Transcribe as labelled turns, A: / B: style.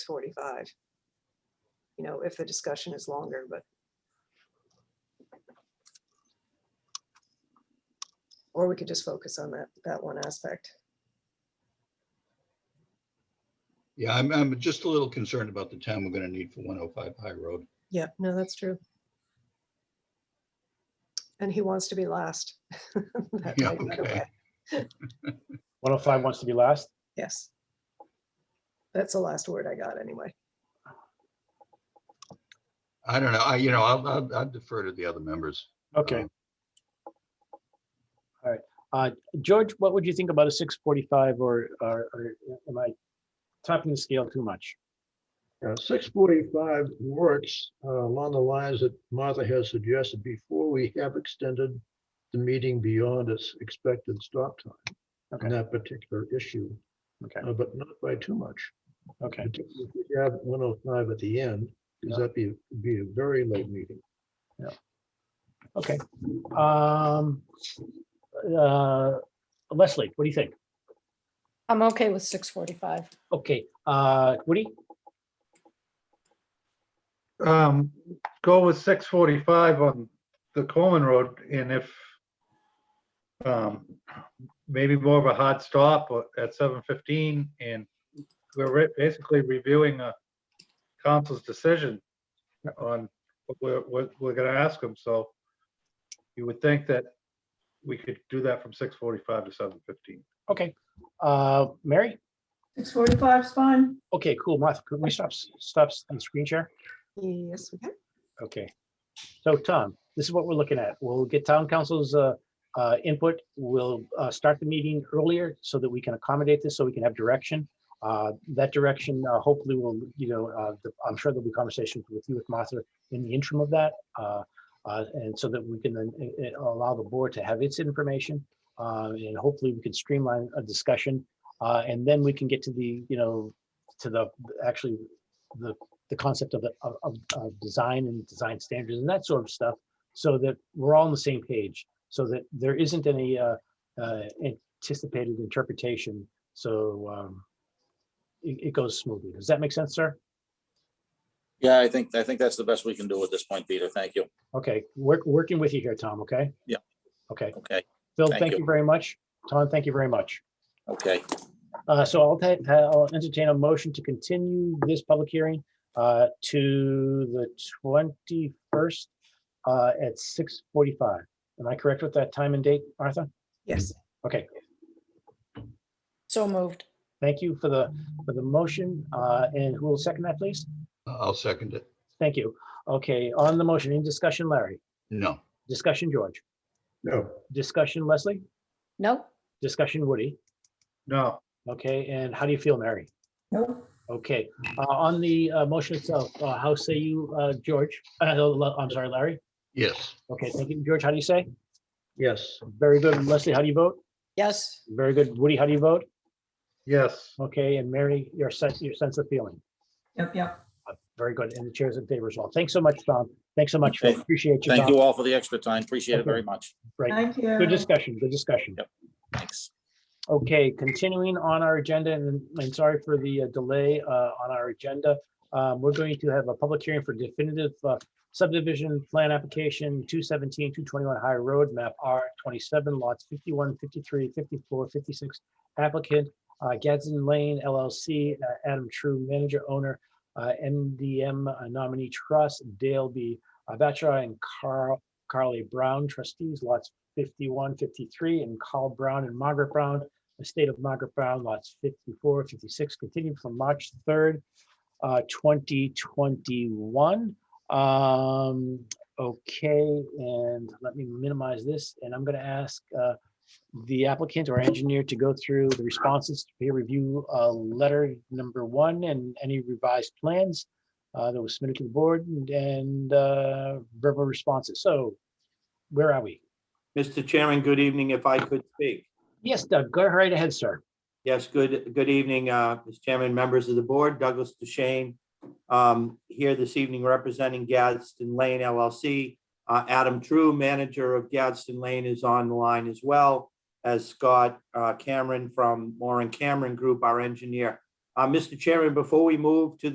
A: forty-five. You know, if the discussion is longer, but. Or we could just focus on that, that one aspect.
B: Yeah, I'm, I'm just a little concerned about the time we're gonna need for one oh five High Road.
A: Yeah, no, that's true. And he wants to be last. That
B: Yeah,
A: might be the
B: okay.
A: way.
C: 105 wants to be last.
A: Yes. That's the last word I got anyway.
B: I don't know, I, you know, I'll, I'll- I'll defer to the other members.
C: Okay.
B: Um,
C: Uh, George, what would you think about a 645 or, or or am I topping the scale too much?
D: Uh, Six forty-five works uh, along the lines that Martha has suggested before we have extended the meeting beyond its expected stop time
C: Okay.
D: on that particular issue,
C: Okay,
D: uh, but not by too much.
C: okay,
D: Particularly if we have one oh five at the end,
C: Yeah.
D: because that'd be, be a very late meeting.
C: okay. Um, uh, Leslie, what do you think?
E: I'm okay with six forty-five.
C: Okay, uh, Woody,
F: um, go with six forty-five on the Coleman Road, and if um, maybe more of a hard stop at seven fifteen, and we're re- basically reviewing a council's decision on what we're, what we're gonna ask them, so you would think that we could do that from six forty-five to seven fifteen.
C: okay. Uh, Mary?
G: Six forty-five is fine.
C: Okay, cool. Martha, could we stop, s- stop s- on screen share?
A: Yes, we can.
C: Okay. So Tom, this is what we're looking at. We'll get town council's uh, uh, input. We'll uh, start the meeting earlier so that we can accommodate this, so we can have direction. Uh, That direction uh, hopefully will, you know, uh, the- I'm sure there'll be conversations with you, with Martha, in the interim of that. uh, uh, And so that we can then uh, uh, allow the board to have its information. uh, And hopefully we can streamline a discussion. uh, And then we can get to the, you know, to the, actually, the the concept of, the- of, of, of design and design standards and that sort of stuff, so that we're all on the same page, so that there isn't any uh, uh, anticipated interpretation. So um, it, it goes smoothly. Does that make sense, sir?
H: Yeah, I think, I think that's the best we can do at this point, Peter. Thank you.
C: Okay, work, working with you here, Tom. Okay.
H: Yeah.
C: Okay,
H: Okay,
C: Phil.
H: Thank
C: Thank
H: you.
C: you very much. Tom, thank you very much.
H: okay.
C: Uh, So I'll ta- uh, I'll entertain a motion to continue this public hearing uh, to the 21st uh, at 6:45. Am I correct with that time and date, Martha?
A: Yes,
C: Okay,
E: So moved.
C: thank you for the, for the motion. uh, And who will second that, please?
B: I'll second it.
C: Thank you. Okay, on the motion, any discussion, Larry?
B: No,
C: Discussion, George?
D: No,
C: Discussion, Leslie?
E: No,
C: Discussion, Woody?
F: No,
C: Okay, and how do you feel, Mary?
G: Nope.
C: Okay, uh, on the uh, motion itself, uh, how say you, uh, George? Uh, Lo- I'm sorry, Larry?
B: yes,
C: Okay, thank you. George, how do you say?
D: yes,
C: Very good. Leslie, how do you vote?
E: yes,
C: Very good. Woody, how do you vote?
F: yes,
C: Okay, and Mary, your sense, your sense of feeling.
G: Yep, yep.
C: Uh, Very good. And the chairs in favor as well. Thanks so much, Tom. Thanks so much. Phil.
H: Okay.
C: Appreciate you.
H: Thank
C: Tom.
H: you all for the extra time. Appreciate it very much.
C: Right.
G: Thank you.
C: Good discussion, good discussion.
H: Yep. Thanks.
C: Okay, continuing on our agenda, and I'm sorry for the uh, delay uh, on our agenda. Um, We're going to have a public hearing for definitive uh, subdivision plan application 217, 221 High Road, map R27, lots 51, 53, 54, 56. Applicant uh, Gadsden Lane LLC, uh, Adam True, manager, owner, uh, MDM uh, nominee trust, Dale B. Bachelor and Carl Carly Brown trustees, lots 51, 53, and Carl Brown and Margaret Brown, estate of Margaret Brown, lots 54, 56, continued from March 3rd, uh, 2021. Um, Okay, and let me minimize this, and I'm going to ask uh, the applicant or engineer to go through the responses to peer review uh, letter number one and any revised plans uh, that was submitted to the board and- and uh, verbal responses. So where are we?
I: Mr. Chairman, good evening, if I could speak.
C: Yes, Doug, go right ahead, sir.
I: Yes, good, good evening, uh, Mr. Chairman, members of the board, Douglas DeShane, um, here this evening representing Gadsden Lane LLC. Uh, Adam True, manager of Gadsden Lane, is on the line as well as Scott uh, Cameron from Warren Cameron Group, our engineer. Uh, Mr. Chairman, before we move to